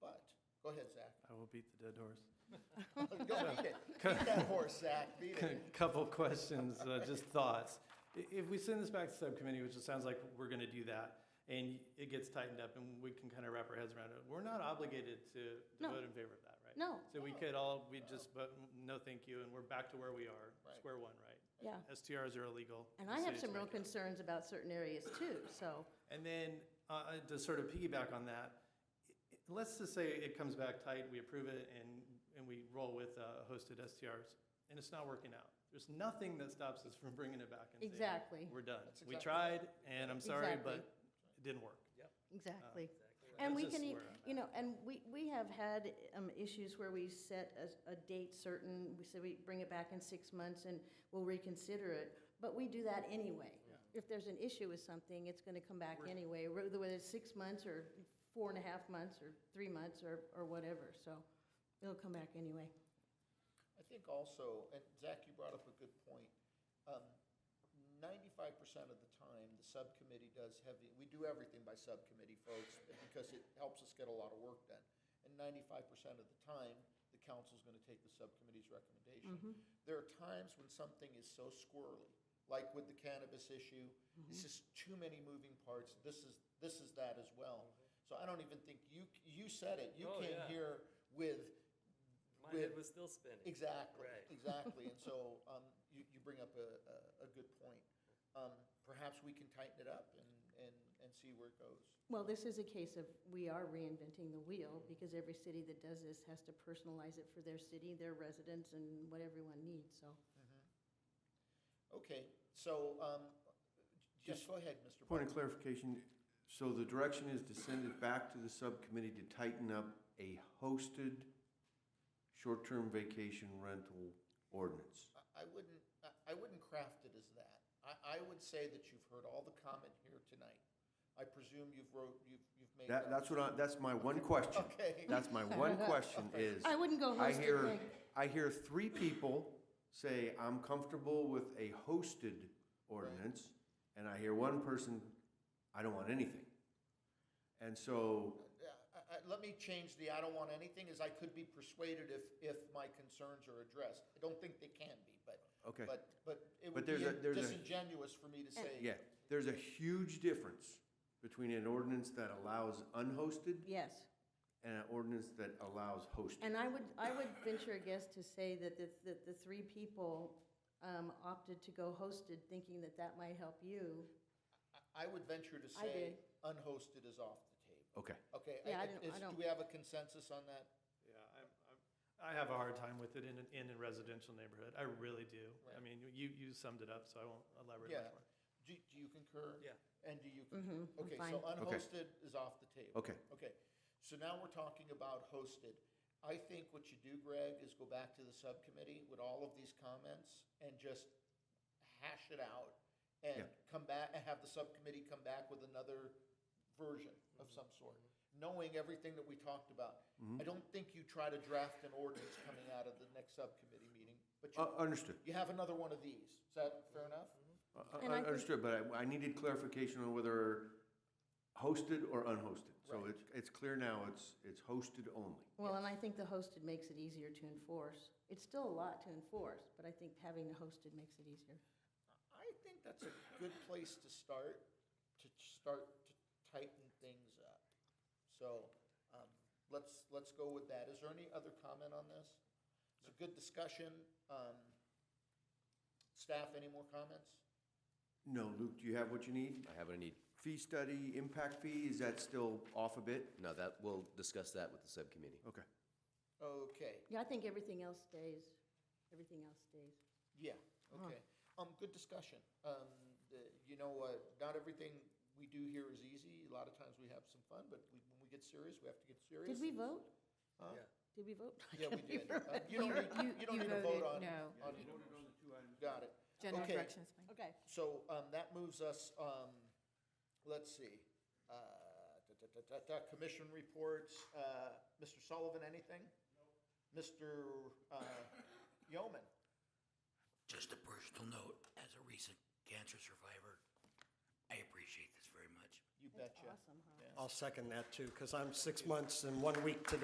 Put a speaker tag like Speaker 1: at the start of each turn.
Speaker 1: will beat the dead horse.
Speaker 2: Go beat it. Beat that horse, Zach, beat it.
Speaker 1: Couple questions, uh, just thoughts. I- If we send this back to subcommittee, which it sounds like we're going to do that, and it gets tightened up and we can kind of wrap our heads around it, we're not obligated to to
Speaker 3: No.
Speaker 1: vote in favor of that, right?
Speaker 3: No.
Speaker 1: So we could all, we just, vote no, thank you, and we're back to where we are,
Speaker 2: Right.
Speaker 1: square one, right?
Speaker 3: Yeah.
Speaker 1: STRs are illegal.
Speaker 3: And
Speaker 1: The
Speaker 3: I have
Speaker 1: city's
Speaker 3: some real
Speaker 1: backing out.
Speaker 3: concerns about certain areas too, so,
Speaker 1: And then, uh, uh, to sort of piggyback on that, i- i- let's just say it comes back tight, we approve it, and, and we roll with uh, hosted STRs, and it's not working out. There's nothing that stops us from bringing it back and saying,
Speaker 3: Exactly.
Speaker 1: we're done.
Speaker 2: That's
Speaker 1: We
Speaker 2: exactly
Speaker 1: tried, and I'm sorry,
Speaker 3: Exactly.
Speaker 1: but it didn't work. Yep.
Speaker 3: Oh, exactly. And we
Speaker 1: That's
Speaker 3: can,
Speaker 1: just
Speaker 3: e-
Speaker 1: where I'm
Speaker 3: you know, and we, we have had um, issues where we set a, a date certain, we say we bring it back in six months and we'll reconsider it, but we do that anyway. If there's an issue with something, it's gonna come back anyway, whether it's six months or four and a half months or three months or, or whatever, so it'll come back anyway.
Speaker 2: I think also, and Zach, you brought up a good point. um, Ninety-five percent of the time, the subcommittee does heavy, we do everything by subcommittee, folks, because it helps us get a lot of work done. And ninety-five percent of the time, the council's gonna take the subcommittee's
Speaker 3: Mm-hmm.
Speaker 2: recommendation. There are times when something is so squirrely, like with the cannabis issue,
Speaker 4: Mm-hmm.
Speaker 2: it's just too many moving parts, this is, this is that as well. So I don't even think, you, you said it, you
Speaker 4: Oh,
Speaker 2: came
Speaker 4: yeah.
Speaker 2: here with
Speaker 4: My
Speaker 2: With-
Speaker 4: head was still spinning.
Speaker 2: Exactly,
Speaker 4: Right.
Speaker 2: exactly. And so um, you, you bring up a, a, a good point. Um, Perhaps we can tighten it up and, and, and see where it goes.
Speaker 3: Well, this is a case of we are reinventing the wheel because every city that does this has to personalize it for their city, their residents, and what everyone needs, so.
Speaker 2: Okay, so um, just go ahead, Mr. Barton.
Speaker 5: Point of clarification, so the direction is to send it back to the subcommittee to tighten up a hosted short-term vacation rental ordinance.
Speaker 2: I- I wouldn't, I- I wouldn't craft it as that. I, I would say that you've heard all the comment here tonight. I presume you've wrote, you've, you've made.
Speaker 5: That, that's what I, that's my one question.
Speaker 2: Okay.
Speaker 5: That's my one question is.
Speaker 3: I wouldn't go
Speaker 5: I
Speaker 3: hosted,
Speaker 5: hear-
Speaker 3: Nick.
Speaker 5: I hear three people say, I'm comfortable with a hosted ordinance, and I hear one person, I don't want anything. And so,
Speaker 2: Yeah, I- I- Let me change the, I don't want anything, is I could be persuaded if, if my concerns are addressed. I don't think they can be, but.
Speaker 5: Okay.
Speaker 2: But, but it
Speaker 5: But
Speaker 2: would be
Speaker 5: there's a- there's a-
Speaker 2: disingenuous for me to say.
Speaker 5: yeah, there's a huge difference between an ordinance that allows unhosted
Speaker 3: Yes,
Speaker 5: and an ordinance that allows hosted.
Speaker 3: and I would, I would venture a guess to say that the, that the three people um, opted to go hosted thinking that that might help you.
Speaker 2: I- I would venture to say
Speaker 3: did.
Speaker 2: unhosted is off the table.
Speaker 5: Okay.
Speaker 2: Okay.
Speaker 3: Yeah,
Speaker 2: is-
Speaker 3: I don't- I
Speaker 2: is-
Speaker 3: don't-
Speaker 2: Do we have a consensus on that?
Speaker 1: Yeah, I'm, I'm, I have a hard time with it in, an- in a residential neighborhood. I really do. I
Speaker 2: Right.
Speaker 1: mean, you, you summed it up, so I won't elaborate
Speaker 2: Yeah.
Speaker 1: much more.
Speaker 2: Do, do you concur?
Speaker 4: Yeah.
Speaker 2: And do you?
Speaker 3: Mm-hmm.
Speaker 2: concur? Okay,
Speaker 3: fine.
Speaker 2: so uh, unhosted is off the table.
Speaker 5: Okay.
Speaker 2: Okay, so now we're talking about hosted. I think what you do, Greg, is go back to the subcommittee with all of these comments and just hash it out and
Speaker 5: Yeah.
Speaker 2: come back, and have the subcommittee come back with another version of some sort, knowing everything that we talked about.
Speaker 5: Mm-hmm.
Speaker 2: I don't think you try to draft an ordinance coming out of the next subcommittee meeting, but
Speaker 5: Uh,
Speaker 2: you,
Speaker 5: Understood,
Speaker 2: you have another one of these. Is that fair enough?
Speaker 5: Uh, uh,
Speaker 3: And I think-
Speaker 5: understood, but I I needed clarification on whether hosted or unhosted. So
Speaker 2: Right.
Speaker 5: it's, it's clear now, it's, it's hosted only.
Speaker 3: Well, and I think the hosted makes it easier to enforce. It's still a lot to enforce, but I think having the hosted makes it easier.
Speaker 2: I think that's a good place to start, to start to tighten things up. So, um, let's, let's go with that. Is there any other comment on this? It's a good discussion. Um, staff, any more comments?
Speaker 5: No, Luke, do you have what you need?
Speaker 6: I have what I need.
Speaker 5: Fee study, impact fee, is that still off a bit?
Speaker 6: No, that, we'll discuss that with the subcommittee.
Speaker 5: Okay.
Speaker 2: Okay,
Speaker 3: Yeah, I think everything else stays, everything else stays.
Speaker 2: yeah, okay. Um, good discussion. Um, the- you know, uh, not everything we do here is easy. A lot of times we have some fun, but we, when we get serious, we have to get serious.
Speaker 3: Did we vote?
Speaker 4: Yeah.
Speaker 3: Did we vote?
Speaker 2: Yeah, we did. Uh, You don't need, you don't need to vote
Speaker 7: voted
Speaker 2: on.
Speaker 7: no.
Speaker 2: on it. Got it.
Speaker 7: General
Speaker 2: Okay,
Speaker 7: directions, please.
Speaker 3: Okay.
Speaker 2: So um, that moves us, um, let's see, uh, da- da- da- da- da, commission reports. Uh, Mr. Sullivan, anything? Mr. uh, Yeoman?
Speaker 8: Just a personal note, as a recent cancer survivor, I appreciate this very much.
Speaker 2: You betcha.
Speaker 3: Awesome, huh?
Speaker 9: I'll second that too, because I'm six months and one week today.